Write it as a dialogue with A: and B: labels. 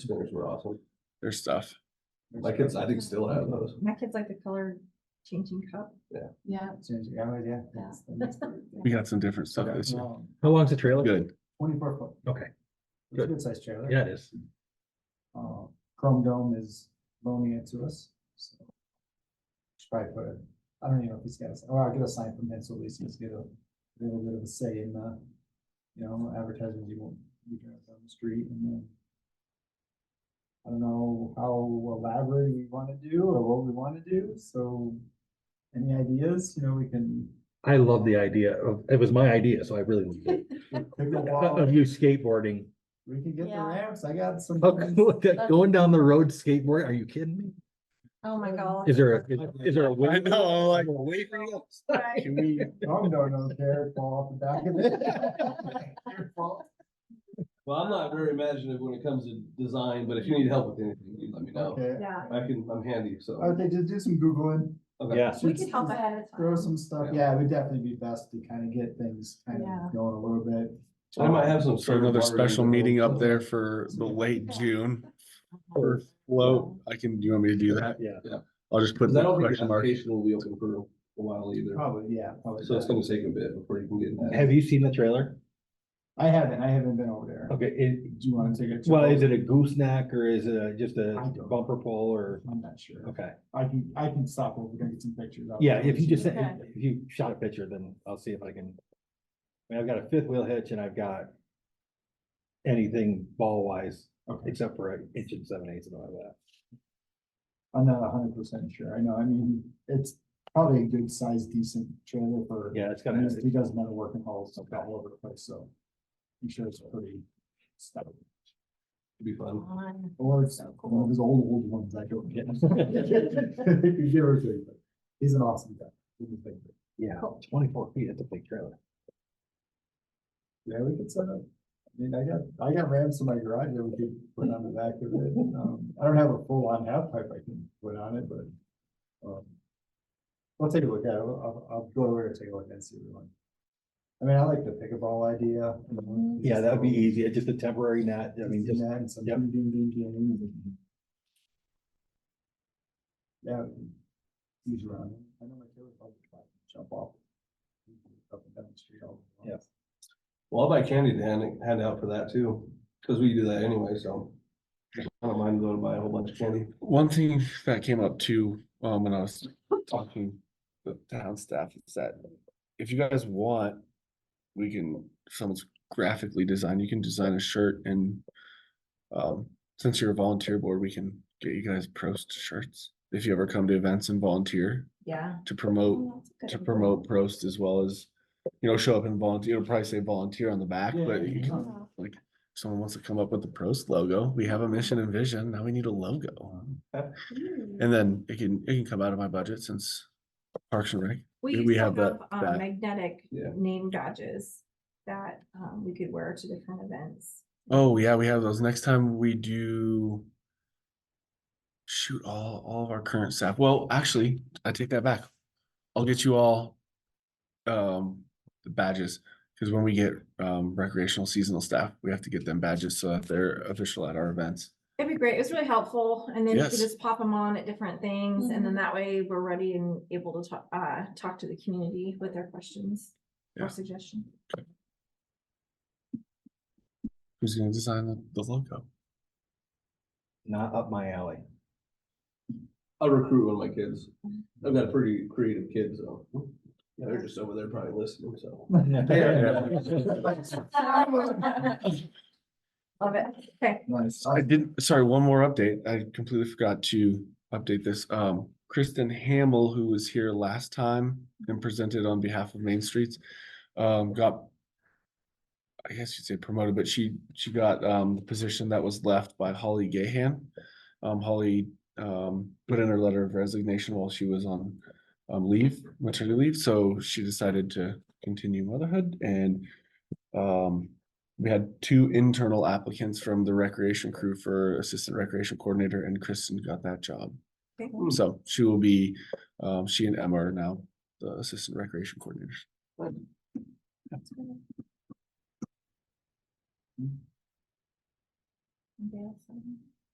A: Spinners were awesome.
B: their stuff.
A: My kids, I think, still have those.
C: My kids like the color changing cup.
A: Yeah.
C: Yeah.
D: Change it, yeah, yeah, that's the next part.
B: We got some different stuff
D: Okay,
B: this year.
D: well,
E: How long's the trailer?
B: Good.
D: Twenty-four foot,
E: Okay,
D: it's a
E: Good.
D: good sized trailer.
E: yeah, it is.
D: Uh, Chrome Dome is loaning it to us, so. Should Probably put it, I don't even know if he's got, a s- or I'll get a sign from him, so at least he's get a little bit of a say in the, you know, advertisements you won't, you drive down the street and then. I don't know how elaborate we wanna do or what we wanna do, so. Any ideas, you know, we can.
E: I love the idea of, it was my idea, so I really loved it.
D: pick a wall.
E: Of you skateboarding,
D: We can get the
C: Yeah.
D: ramps, I got some.
E: How
D: plans.
E: cool is that? going down the road skateboard, are you kidding me?
C: Oh, my God.
E: Is there a, is there a?
B: I
E: wait-
B: know, I'm like-
E: a wait room?
C: Right.
D: Can we, Tom don't know, Derek fall off the back of it. Your fault.
A: Well, I'm not very imaginative when it comes to design, but if you need help with anything, you let me know.
D: Okay,
C: Yeah.
A: I can, I'm handy,
D: I
A: so.
D: would think just do some Googling,
A: Okay.
E: Yeah.
C: We could help ahead of time.
D: throw some stuff, yeah, it would definitely be best to kind of get things kind
C: Yeah.
D: of going a little bit.
A: I might have some.
B: So another
A: server
B: special
A: already
B: meeting up
A: built,
B: there for the late June. For float, I can, do you want me to do that?
E: Yeah.
B: I'll just
A: so-
B: put
A: 'Cause I
B: the
A: don't think the
B: question mark.
A: application will be open for a while either,
D: Probably, yeah, probably.
A: so it's gonna take a bit before you can get that.
E: Have you seen the trailer?
D: I haven't, I haven't been over there.
E: Okay, it,
D: Do you want to take a?
E: well,
D: tour?
E: is it a gooseneck or is it a- just a
D: I don't-
E: bumper pole or,
D: I'm not sure,
E: okay.
D: I can, I can stop over there and get some pictures. out
E: Yeah,
D: there.
E: if you just, sent-
C: Okay.
E: if you shot a picture, then I'll see if I can. I mean, I've got a fifth wheel hitch and I've got anything ball wise,
D: Okay,
E: except for an inch and seven eighths and all that.
D: I'm not hundred percent sure, I know, I mean, it's probably a good size, decent trailer for.
E: Yeah, it's
D: I
E: got
D: mean, He
E: to
D: does metal working halls all over the place, so I'm sure it's pretty stout.
A: It'd be fun.
C: Fun.
D: Or it's
C: So
D: one
C: cool.
D: of his old, old ones I don't get. He's an awesome guy. He's a big guy.
E: yeah, twenty-four feet, that's a big trailer.
D: Yeah, we could set up, I mean, I got, I got ramps in my garage that we could put on the back of it. Um, I don't have a full on half pipe I can put on it, but, um, I'll take a look at it. I'll, I'll go over and take a look and see what we want. I mean, I like the pickleball idea. you know,
E: Yeah, that would be
D: just-
E: easy, it's just a temporary net, I mean, just,
D: And some
E: yep.
D: ding, ding, ding, ding, ding. Yeah. He's around. I know my kid would love to try to jump off. Up and down the street all.
E: Yeah.
A: Well, I'll buy candy to hand, hand out for that too, cause we do that anyway, so. I don't mind going to buy a whole bunch of candy.
B: One thing that came up too, um, when I was talking to the town staff is that if you guys want, we can, if someone's graphically designed, you can design a shirt and um, since you're a volunteer board, we can get you guys Prost shirts. If you ever come to events and volunteer
C: Yeah.
B: to promote
C: Oh, that's a good
B: to
C: idea.
B: promote Prost as well as, you know, show up and volunteer, it'll probably say volunteer on the back,
D: Yeah,
B: but
D: yeah,
B: you
D: yeah.
B: can,
C: Yeah.
B: like, if someone wants to come up with the Prost logo. We have a mission and vision. Now we need a logo.
C: Hmm.
B: And then it can, it can come out of my budget since Parks and Rec.
C: We
B: we-
C: used
B: we
C: to
B: have
C: have
B: that
C: um,
B: back.
C: magnetic
A: Yeah.
C: name badges that um, we could wear to different events.
B: Oh, yeah, we have those. Next time we do shoot all, all of our current staff. Well, actually, I take that back. I'll get you all um the badges because when we get um recreational seasonal staff, we have to get them badges so that they're official at our events.
C: It'd be great. It was really helpful. And then you could
B: Yes.
C: just pop them on at different things. And then that way we're ready and able to talk, uh, talk to the community with their questions
B: Yeah.
C: or suggestions.
B: Who's gonna design the- the logo?
E: not up my alley.
A: I'll recruit one of my kids. I've got a pretty creative kid, so. Yeah, they're just over there probably listening, so.
C: Love it. Okay.
D: Nice.
B: I didn't, sorry, one more update. I completely forgot to update this. Um, Kristen Hamel, who was here last time and presented on behalf of Main Streets, um, got I guess you'd say promoted, but she, she got, um, the position that was left by Holly Gahan. Um, Holly, um, put in her letter of resignation while she was on, um, leave, maternity leave, so she decided to continue motherhood and, um, we had two internal applicants from the recreation crew for assistant recreation coordinator and Kristen got that job.
C: Okay.
B: So she will be, um, she and Emma are now the assistant recreation coordinators.
C: Anybody else?